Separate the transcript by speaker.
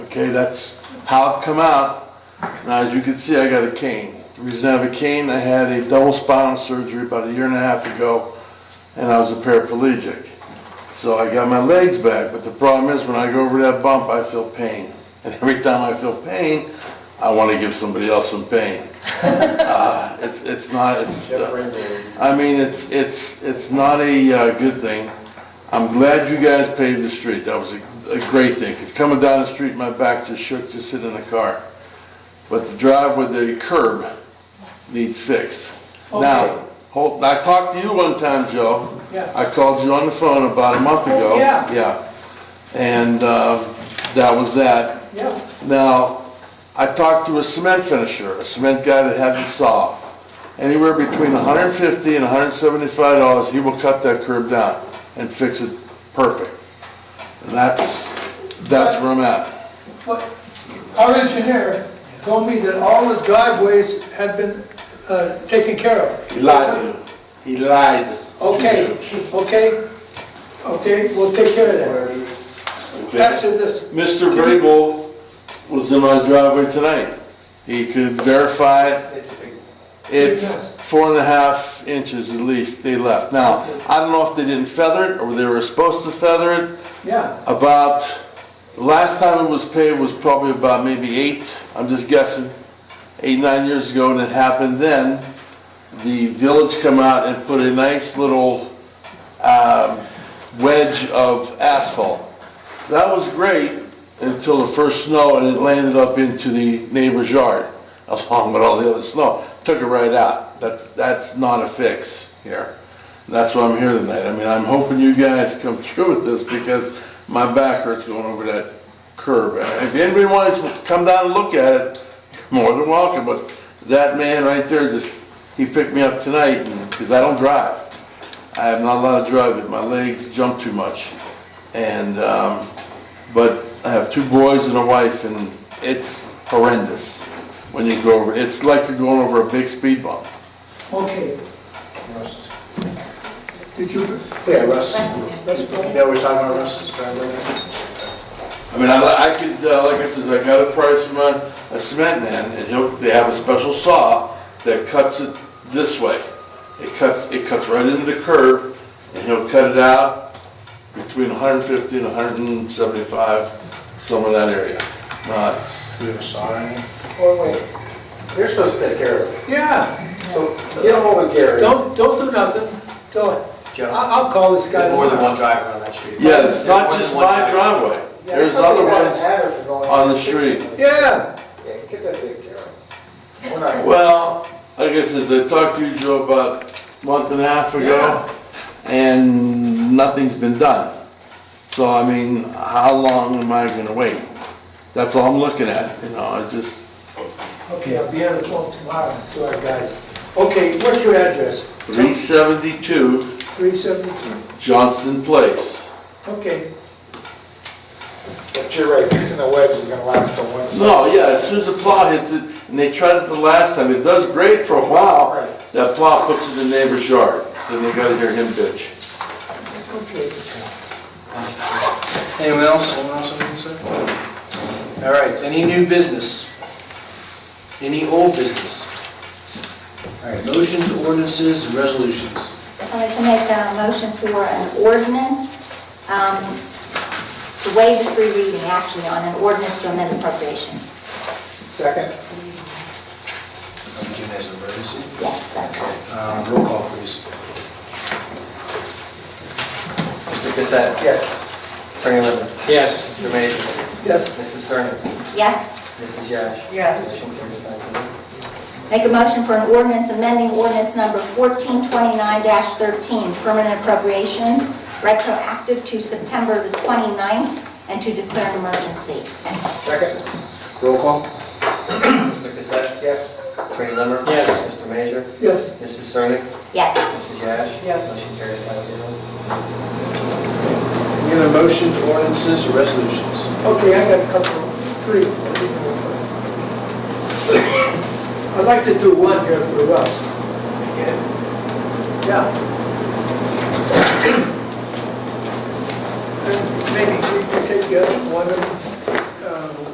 Speaker 1: Okay, that's how it come out. Now, as you can see, I got a cane. The reason I have a cane, I had a double spinal surgery about a year and a half ago, and I was a paraplegic. So I got my legs back, but the problem is when I go over that bump, I feel pain. And every time I feel pain, I want to give somebody else some pain. Uh, It's, it's not, it's, uh, I mean, it's, it's, it's not a uh, good thing. I'm glad you guys paved the street, that was a, a great thing, because coming down the street, my back just shook just sitting in the car. But the drive with the curb needs fixed.
Speaker 2: Okay.
Speaker 1: Now, hold, I talked to you one time, Joe.
Speaker 2: Yeah.
Speaker 1: I called you on the phone about a month
Speaker 2: Oh,
Speaker 1: ago.
Speaker 2: yeah.
Speaker 1: Yeah, and, uh, that was that.
Speaker 2: Yeah,
Speaker 1: Now, I talked to a cement finisher, a cement guy that has a saw. Anywhere between 150 and 175 dollars, he will cut that curb down and fix it perfect. And that's, that's where I'm at.
Speaker 2: but our engineer told me that all the driveways had been uh, taken care of.
Speaker 1: He lied. He lied.
Speaker 2: Okay, okay, okay, we'll take care of that. Back to this,
Speaker 1: Mr. Vrabel was in my driveway tonight. He could verify it. It's four and a half inches at least they left. Now, I don't know if they didn't feather it or they were supposed to feather it.
Speaker 2: yeah,
Speaker 1: About, the last time it was paved was probably about maybe eight, I'm just guessing, eight, nine years ago, and it happened then. The village come out and put a nice little um, wedge of asphalt. That was great until the first snow, and it landed up into the neighbor's yard, along with all the other snow. Took it right out. That's, that's not a fix here. That's why I'm here tonight. I mean, I'm hoping you guys come through with this, because my back hurts going over that curb. And If anybody wants to come down and look at it, more than welcome, but that man right there just, he picked me up tonight, because I don't drive. I have not allowed to drive it, my legs jump too much. And, um, but I have two boys and a wife, and it's horrendous when you go over, it's like you're going over a big speed bump.
Speaker 2: okay. Did you,
Speaker 3: Yeah, Russ.
Speaker 2: let's go.
Speaker 3: Yeah, we're talking about Russ's driveway.
Speaker 1: I mean, I, li- I could, uh, like I said, I got a price from a, a cement man, and he'll, they have a special saw that cuts it this way. It cuts, it cuts right into the curb, and he'll cut it out between hundred and fifty and hundred and seventy-five, somewhere in that area. No, it's,
Speaker 3: Do you have a saw or anything?
Speaker 4: Well, wait, they're supposed to take care of it,
Speaker 2: Yeah,
Speaker 4: so get ahold of Gary.
Speaker 2: don't, don't do nothing, till, I-
Speaker 5: Joe,
Speaker 2: I'll call this guy.
Speaker 5: there's more than one driver on that street.
Speaker 1: yeah, it's not
Speaker 5: There's
Speaker 1: just
Speaker 5: more than
Speaker 1: my
Speaker 5: one driver.
Speaker 1: driveway,
Speaker 4: Yeah,
Speaker 1: there's
Speaker 4: somebody
Speaker 1: other
Speaker 4: got
Speaker 1: ones.
Speaker 4: an adder for going
Speaker 1: on
Speaker 4: out
Speaker 1: the
Speaker 4: and fixing
Speaker 1: street.
Speaker 4: it.
Speaker 2: Yeah,
Speaker 4: Yeah, get that taken care of. We're not-
Speaker 1: Well, like I said, I talked to you, Joe, about a month and a half ago, and nothing's been done. So, I mean, how long am I gonna wait? That's all I'm looking at, you know, I just,
Speaker 2: okay, I'll be on the phone tomorrow to our guys. Okay, what's your address?
Speaker 1: three seventy-two
Speaker 2: Three seventy-two.
Speaker 1: Johnston Place.
Speaker 2: Okay,
Speaker 4: But you're right, fixing a wedge is gonna last till one.
Speaker 1: No, yeah, as soon as the plow hits it, and they tried it the last time, it does great for a while,
Speaker 4: Right.
Speaker 1: that plow puts it in the neighbor's yard, then they gotta hear him bitch.
Speaker 2: okay.
Speaker 5: Anyone else? Anyone else have anything to say? All right, any new business? Any old business? All right, motions, ordinances, and resolutions.
Speaker 6: I'd like to make a motion for an ordinance, um, to waive the free reading, actually, on an ordinance to amend appropriations.
Speaker 4: Second,
Speaker 5: I'm doing as an emergency.
Speaker 6: Yes, that's right.
Speaker 5: Uh, Roll call, please.
Speaker 7: Mr. Cassett.
Speaker 4: yes,
Speaker 7: Attorney Linder.
Speaker 5: Yes.
Speaker 7: Mr. Major.
Speaker 2: Yes,
Speaker 7: Mrs. Sernick.
Speaker 6: Yes?
Speaker 7: Mrs. Yash.
Speaker 2: Yes.
Speaker 7: Motion carries nine zero.
Speaker 6: Make a motion for an ordinance amending ordinance number 1429-13, permanent appropriations, retroactive to September the 29th, and to declare an emergency.
Speaker 4: second,
Speaker 5: Roll call?
Speaker 7: Mr. Cassett.
Speaker 4: yes,
Speaker 7: Attorney Linder.
Speaker 5: Yes.
Speaker 7: Mr. Major.
Speaker 2: yes.
Speaker 7: Mrs. Sernick.
Speaker 6: Yes.
Speaker 7: Mrs. Yash.
Speaker 2: Yes.
Speaker 7: Motion carries nine zero.
Speaker 5: Any other motions, ordinances, or resolutions?
Speaker 2: Okay, I got a couple, three. I'd like to do one here for Russ. Yeah. And Maybe we can take the other one, um,